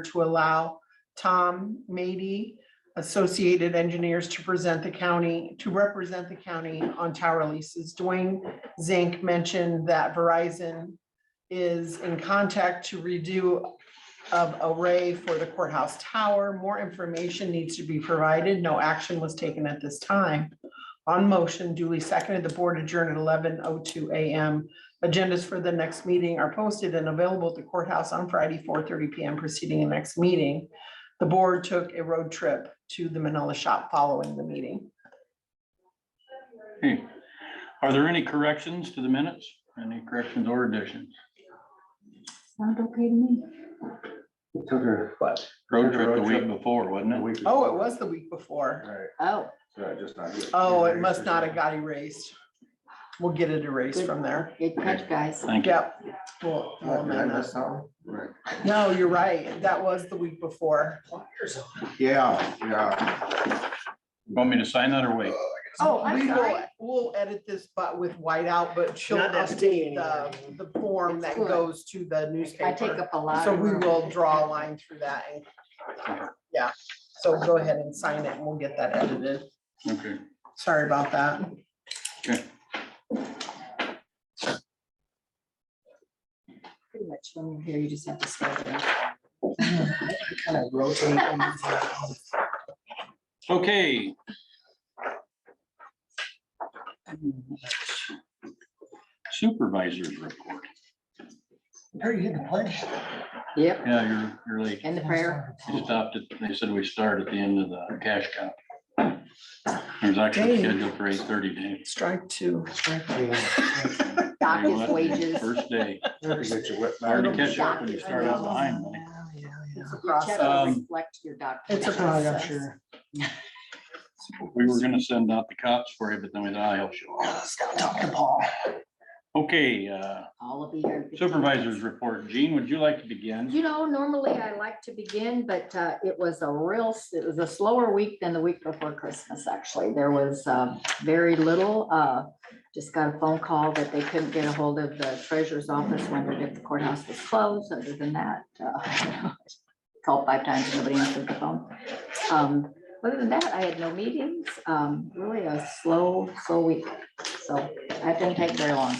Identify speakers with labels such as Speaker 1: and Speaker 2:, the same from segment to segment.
Speaker 1: to allow Tom Mady, Associated Engineers, to present the county, to represent the county on tower leases. Dwayne Zink mentioned that Verizon is in contact to redo of array for the courthouse tower. More information needs to be provided. No action was taken at this time. On motion duly seconded, the board adjourned at eleven oh two AM. Agendas for the next meeting are posted and available at the courthouse on Friday, four thirty PM preceding the next meeting. The board took a road trip to the Manila shop following the meeting.
Speaker 2: Okay. Are there any corrections to the minutes? Any corrections or additions?
Speaker 3: Sound okay to me?
Speaker 4: Took her, what?
Speaker 2: Road
Speaker 4: Took a
Speaker 2: trip the
Speaker 4: road
Speaker 2: week
Speaker 4: trip.
Speaker 2: before, wasn't it?
Speaker 1: Oh, it was the week before.
Speaker 4: Right,
Speaker 3: Oh,
Speaker 4: so I just not.
Speaker 1: Oh, it must not have got erased. We'll get it erased from there.
Speaker 3: good catch, guys.
Speaker 2: Thank you.
Speaker 1: Yep. We'll-
Speaker 4: Did
Speaker 1: we'll
Speaker 4: I
Speaker 1: amend
Speaker 4: miss
Speaker 1: that.
Speaker 4: something? Right.
Speaker 1: No, you're right. That was the week before.
Speaker 4: Yeah, yeah.
Speaker 2: Want me to sign that or wait?
Speaker 3: Oh, I'm
Speaker 1: We will-
Speaker 3: sorry.
Speaker 1: We'll edit this, but with whiteout, but she'll
Speaker 5: Not that
Speaker 1: update
Speaker 5: skinny
Speaker 1: the, the form that
Speaker 3: Good.
Speaker 1: goes to the
Speaker 3: I take
Speaker 1: newspaper.
Speaker 3: up a lot.
Speaker 1: So
Speaker 3: of
Speaker 1: we
Speaker 3: room.
Speaker 1: will draw a line through that and, yeah, so go ahead and sign it and we'll get that edited.
Speaker 2: Okay.
Speaker 1: Sorry about that.
Speaker 3: Pretty much when you're here, you just have to slow down.
Speaker 5: kind of rotate. things around.
Speaker 2: Okay. Supervisors report.
Speaker 5: Harry hit the pledge.
Speaker 3: Yep,
Speaker 2: Yeah, you're, you're late.
Speaker 3: and the prayer.
Speaker 2: You stopped at, they said we start at the end of the cash cow. There's actually
Speaker 1: Dang.
Speaker 2: scheduled for eight thirty day.
Speaker 1: Strike two.
Speaker 3: Dock
Speaker 2: You know
Speaker 3: his
Speaker 2: what?
Speaker 3: wages.
Speaker 2: First day.
Speaker 4: Never get your whip back.
Speaker 2: Hard to catch up when you start out behind. Mike.
Speaker 1: It's a
Speaker 3: Your check
Speaker 1: process.
Speaker 3: will
Speaker 2: Um,
Speaker 3: reflect your dock.
Speaker 1: It's a
Speaker 5: Oh, yeah,
Speaker 1: process.
Speaker 5: I'm sure.
Speaker 2: We were gonna send out the cops for you, but then we thought I'll show up.
Speaker 5: Stop talking to Paul.
Speaker 2: Okay, uh,
Speaker 3: All of you. here in fifteen
Speaker 2: supervisors
Speaker 3: minutes.
Speaker 2: report. Gene, would you like to begin?
Speaker 3: You know, normally I like to begin, but uh, it was a real, it was a slower week than the week before Christmas, actually. There was um, very little. uh, Just got a phone call that they couldn't get a hold of the treasurer's office, wondered if the courthouse was closed. Other than that, uh, called five times, nobody answered the phone. Um, Other than that, I had no meetings. Um, Really a slow, slow week. So that didn't take very long.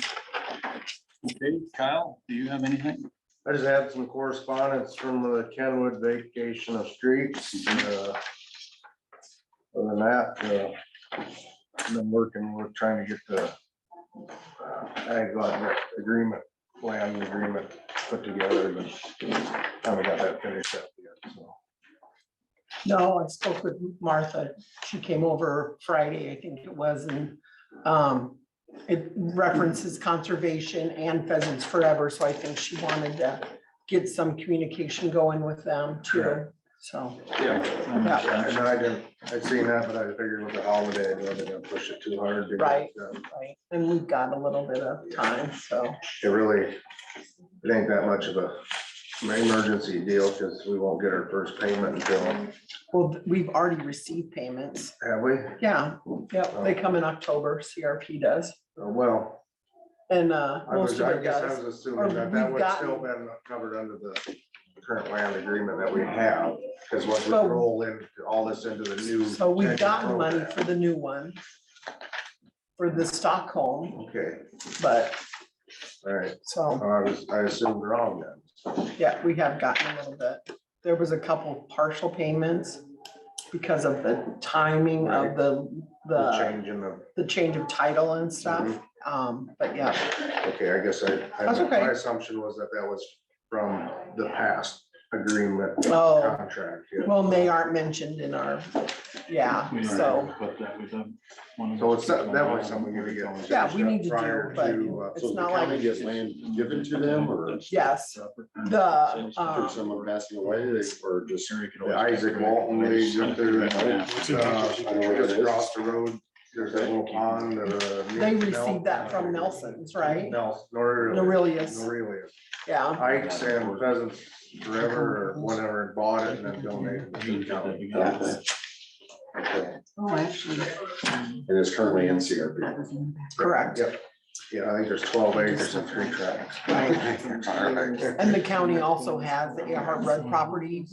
Speaker 2: Okay, Kyle, do you have anything?
Speaker 4: I just had some correspondence from the Kenwood vacation of streets. uh, Other than that, uh, I've been working, we're trying to get the uh, ag lot agreement, land agreement put together, but haven't got that finished up yet, so.
Speaker 1: No, I spoke with Martha. She came over Friday, I think it was, and um, it references conservation and Pheasants Forever, so I think she wanted to get some communication going with them too, so.
Speaker 2: Um,
Speaker 4: And I didn't, I'd seen that, but I figured with the holiday, I wasn't gonna push it too hard. because,
Speaker 1: Right.
Speaker 4: um,
Speaker 1: right, And we've got a little bit of time, so,
Speaker 4: It really, it ain't that much of a emergency deal, because we won't get our first payment until,
Speaker 1: well, we've already received payments.
Speaker 4: have we?
Speaker 1: Yeah, yep, they come in October, CRP does,
Speaker 4: Oh, Well,
Speaker 1: and uh,
Speaker 4: I
Speaker 1: most
Speaker 4: was,
Speaker 1: of
Speaker 4: I
Speaker 1: it
Speaker 4: guess I
Speaker 1: does.
Speaker 4: was
Speaker 1: Or
Speaker 4: assuming that
Speaker 1: we've
Speaker 4: that would
Speaker 1: gotten-
Speaker 4: still been covered under the current land agreement that we have, because once we
Speaker 1: Well-
Speaker 4: roll in, all this into the new.
Speaker 1: So we've
Speaker 4: pension
Speaker 1: gotten money
Speaker 4: program.
Speaker 1: for the new one. For the Stockholm,
Speaker 4: Okay,
Speaker 1: but
Speaker 4: all right,
Speaker 1: so,
Speaker 4: I was, I assumed wrong then.
Speaker 1: yeah, we have gotten a little bit. There was a couple partial payments because of the timing of the,
Speaker 4: The
Speaker 1: the,
Speaker 4: change Mm-hmm. in the,
Speaker 1: the change of title and stuff. Um, but yeah,
Speaker 4: okay, I guess I, I-
Speaker 1: That's okay.
Speaker 4: my assumption was that that was from the past agreement
Speaker 1: oh,
Speaker 4: contract. yeah.
Speaker 1: well, they aren't mentioned in our, yeah,
Speaker 2: We already
Speaker 1: so,
Speaker 2: put that with them. One of
Speaker 4: So it's
Speaker 2: those-
Speaker 4: that- definitely something we're gonna get. finished
Speaker 1: Yeah, we
Speaker 4: up
Speaker 1: need to do,
Speaker 4: prior
Speaker 1: but
Speaker 4: to, uh,
Speaker 1: it's
Speaker 6: So the
Speaker 1: not like-
Speaker 6: county gets land given to them or
Speaker 1: yes, the,
Speaker 6: for
Speaker 1: um,
Speaker 6: someone passing away, they, or just.
Speaker 4: The Isaac Walton League, up there, uh, I uh, know just across the road, there's that little pond that, uh.
Speaker 1: they received that from Nelson's, right?
Speaker 4: Nelson, Nor.
Speaker 1: Aurelius.
Speaker 4: Aurelius.
Speaker 1: Yeah,
Speaker 4: Ike's and Pheasants Forever or whatever, bought it and then donated. it to the county.
Speaker 3: Oh, actually. um,
Speaker 6: It is currently in
Speaker 3: that
Speaker 6: CRP.
Speaker 3: was in the back.
Speaker 1: correct.
Speaker 4: Yep. Yeah, I think there's twelve acres and three tracks.
Speaker 1: Right. And the county also has the Earhart Road property,